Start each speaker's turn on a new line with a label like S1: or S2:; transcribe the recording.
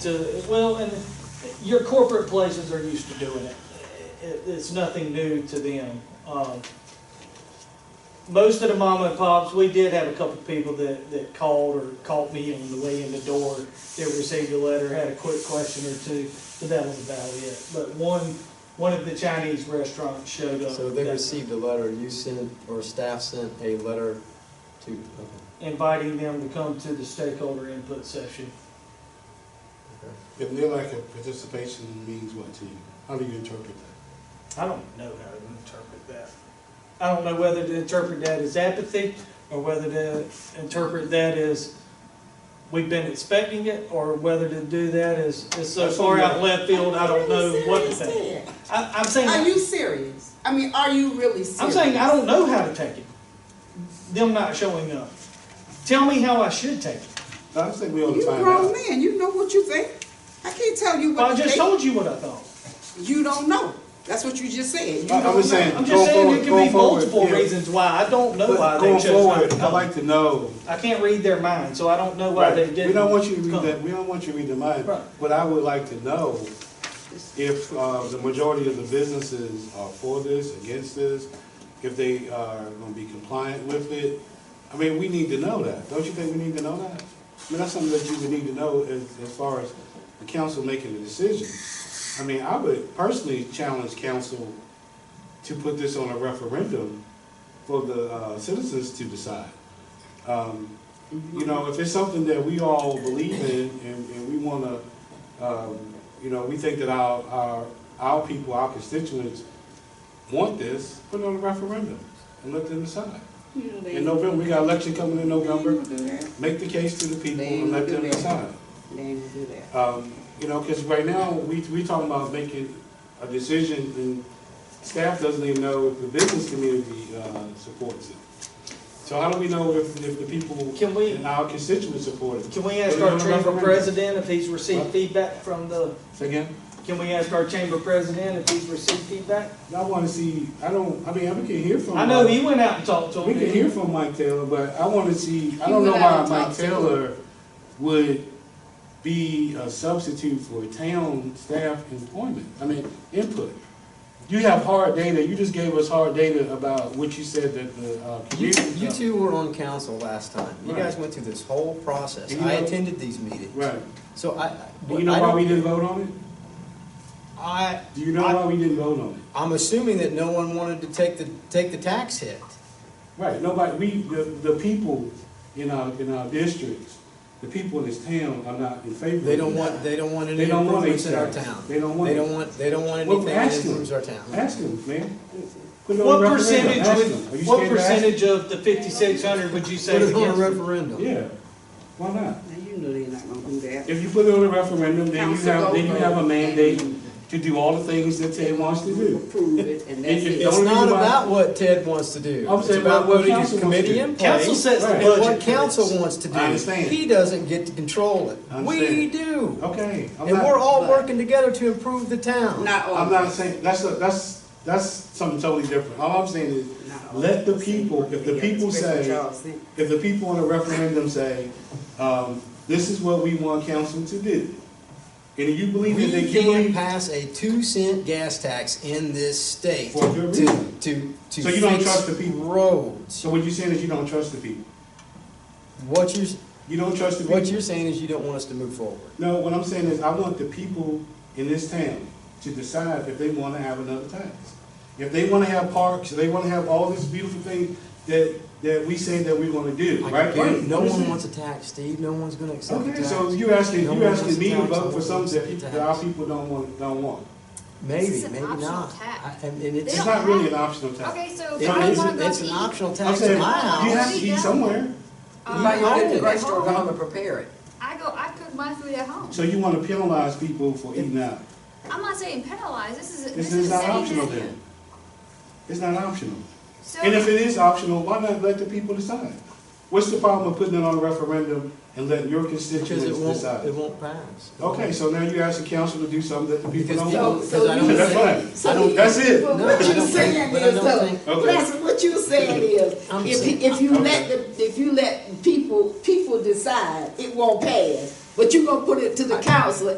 S1: to, well, and your corporate places are used to doing it. It, it's nothing new to them. Um, most of the mama and pops, we did have a couple people that, that called or caught me on the way in the door that received a letter, had a quick question or two, but that was about it. But one, one of the Chinese restaurants showed up.
S2: So they
S1: that-
S2: received a letter, you sent, or staff sent a letter to, okay,
S1: Inviting them to come to the stakeholder input session.
S2: okay.
S3: If they're like a participation means what to you? How do you interpret that?
S1: I don't know how to interpret that. I don't know whether to interpret that as apathy or whether to interpret that as we've been expecting it or whether to do that as it's so far out left field, I don't know what to think. I, I'm
S4: Are
S1: saying,
S4: you serious? I mean, are you really serious?
S1: I'm saying I don't know how to take it. Them not showing up. Tell me how I should take it.
S3: I think we on
S4: You
S3: time
S4: grown
S3: out.
S4: man, you know what you think. I can't tell you
S1: Well, I
S4: what you
S1: just
S4: think.
S1: told you what I thought.
S4: You don't know. That's what you just said. You
S3: I- Uh, I'm
S4: don't
S3: just
S4: know.
S3: saying-
S1: I'm
S3: Going
S1: just saying
S3: forward-
S1: there can
S3: going
S1: be
S3: forward,
S1: multiple
S3: yeah.
S1: reasons why. I don't know why
S3: But
S1: they
S3: Going
S1: chose not
S3: forward,
S1: to
S3: I'd
S1: come.
S3: like to know.
S1: I can't read their mind, so I don't know why
S3: Right.
S1: they didn't
S3: We don't want you to read
S1: come.
S3: that, we don't want you to read the mind.
S1: Right.
S3: But I would like to know if uh, the majority of the businesses are for this, against this, if they are gonna be compliant with it. I mean, we need to know that. Don't you think we need to know that? I mean, that's something that you would need to know as, as far as the council making a decision. I mean, I would personally challenge council to put this on a referendum for the uh, citizens to decide. Um,
S4: Mm-hmm.
S3: you know, if it's something that we all believe in and, and we wanna, um, you know, we think that our, our, our people, our constituents want this, put it on a referendum and let them decide.
S4: You know, they-
S3: In November, we got election coming in
S4: they ain't
S3: November,
S4: gonna do that.
S3: make the case to the people
S4: They
S3: and let
S4: do
S3: them
S4: that.
S3: decide.
S4: They ain't gonna do that.
S3: Um, you know, cause right now, we, we talking about making a decision and staff doesn't even know if the business community, uh, supports it. So how do we know if, if the people
S1: Can we-
S3: and our constituents support it?
S1: Can we ask
S3: Put it on
S1: our
S3: a
S1: chamber
S3: referendum.
S1: president if he's received feedback from the,
S3: Say again?
S1: can we ask our chamber president if he's received feedback?
S3: I wanna see, I don't, I mean, we can hear from.
S1: I know
S3: Mike-
S1: he went out and talked to him.
S3: We can hear from Mike Taylor, but I wanna see, I
S4: He
S3: don't know
S4: went out
S3: why Mike
S4: and talked to
S3: Taylor would be a substitute for town staff employment, I mean, input. You have hard data, you just gave us hard data about what you said that the, uh.
S2: You,
S3: community-
S2: you two were on council last time, you guys
S3: Right.
S2: went through this whole process,
S3: Do you
S2: I
S3: know-
S2: attended these meetings,
S3: Right,
S2: so I. I-
S3: do you know
S2: I
S3: why
S2: don't-
S3: we didn't vote on it?
S2: I,
S3: Do you know
S2: I-
S3: why we didn't vote on it?
S2: I'm assuming that no one wanted to take the, take the tax hit.
S3: Right, nobody, we, the, the people in our, in our districts, the people in this town are not in favor of
S2: They don't
S3: this.
S2: want, they don't want any
S3: They don't want
S2: improvements in our
S3: any tax.
S2: town.
S3: They don't want
S2: They
S3: it.
S2: don't want, they don't want
S3: Well,
S2: anything that
S3: ask them.
S2: improves our town.
S3: Ask them, man. Put it on
S1: What
S3: referendum.
S1: percentage,
S3: Ask
S1: would-
S3: them. Are
S1: what
S3: you scared to ask them?
S1: percentage of the fifty-six hundred would you say
S2: Put
S1: is
S2: it on a
S1: against? it?
S2: referendum.
S3: Yeah, why not?
S4: Now, you know they're not gonna do that.
S3: If you put it on a referendum, then you
S4: Council
S3: have, then you
S4: vote.
S3: have a mandate to do all the things that Ted wants to do.
S4: Approve it and that's
S3: If you
S4: it.
S2: It's
S3: Only
S2: not
S3: reason why-
S2: about what Ted wants to do.
S3: I'm
S2: It's
S3: saying
S2: about
S3: what- what
S2: putting a
S3: council wants to
S2: committee
S3: do.
S2: in place.
S1: Council sets the
S3: Right.
S2: And
S1: budget.
S2: what council
S1: for
S2: wants to do.
S3: I understand.
S2: He doesn't get to control it.
S3: I
S2: We
S3: understand.
S2: do.
S3: Okay, I'm
S2: And we're
S3: not,
S2: all
S4: but-
S2: working together to improve the town.
S4: Not all.
S3: I'm not saying, that's, a- that's, that's something totally different. All I'm saying is,
S4: Not all.
S3: let the people, if the
S4: Yeah,
S3: people
S4: especially
S3: say,
S4: Charles City.
S3: if the people on a referendum say, um, this is what we want council to do. And if you believe that
S2: We
S3: they can
S2: can't
S3: believe.
S2: pass a two cent gas tax in this state
S3: For good
S2: to,
S3: reason.
S2: to, to
S3: So you don't trust
S2: fix
S3: the people?
S2: roads.
S3: So what you're saying is you don't trust the people.
S2: What you're,
S3: You don't trust the people.
S2: what you're saying is you don't want us to move forward.
S3: No, what I'm saying is I want the people in this town to decide if they want to have another tax. If they want to have parks, if they want to have all these beautiful things that, that we say that we're going to do,
S2: I
S3: right?
S2: get it. No one wants a tax, Steve. No one's gonna accept a
S3: Okay,
S2: tax.
S3: so you asking,
S2: No
S3: you
S2: one wants
S3: asking
S2: a
S3: me to
S2: tax. No
S3: vote for
S2: one
S3: something
S2: wants
S3: that
S2: a
S3: people, that
S2: tax.
S3: our people don't want, don't want.
S2: Maybe,
S5: This is an
S2: maybe
S5: optional
S2: not.
S5: tax.
S2: I- I mean, it's,
S5: They
S3: It's
S5: don't
S2: it
S3: not really
S5: have-
S3: an optional tax.
S5: Okay, so if I don't
S2: is,
S5: wanna go
S2: it's
S5: to
S2: an
S5: eat,
S2: optional
S3: I'm
S2: tax
S3: saying,
S2: in
S3: you
S2: my
S3: have
S2: house.
S3: to eat somewhere,
S4: You
S5: um,
S4: might
S2: No.
S4: go
S5: I
S4: to the
S5: cook at
S4: restaurant
S5: home.
S4: home and prepare it.
S5: I go, I cook my food at home.
S3: so you want to penalize people for eating out.
S5: I'm not saying penalize, this is,
S3: This
S5: this
S3: is
S5: is
S3: not
S5: saying
S3: optional
S5: that.
S3: then. It's not optional.
S5: So,
S3: And if it is optional, why not let the people decide? What's the problem with putting it on a referendum and letting your
S2: Because it
S3: constituents
S2: won't, it
S3: decide?
S2: won't pass.
S3: Okay, so now you ask the council to do something that the people
S2: Because
S3: don't
S2: people-
S4: So,
S2: Because I
S3: want.
S4: so
S2: don't
S4: you
S3: That's
S4: said.
S3: right.
S4: so
S2: I don't-
S4: you-
S3: That's it.
S4: But
S2: No,
S4: what
S2: I
S4: you're
S2: don't
S4: saying
S2: think- but I
S4: is,
S2: don't
S4: so,
S2: think-
S3: Okay.
S4: Blessing, what you're saying is,
S2: I'm saying-
S4: if, if you
S3: okay.
S4: let the, if you let people, people decide, it won't pass. But you're gonna put it to the council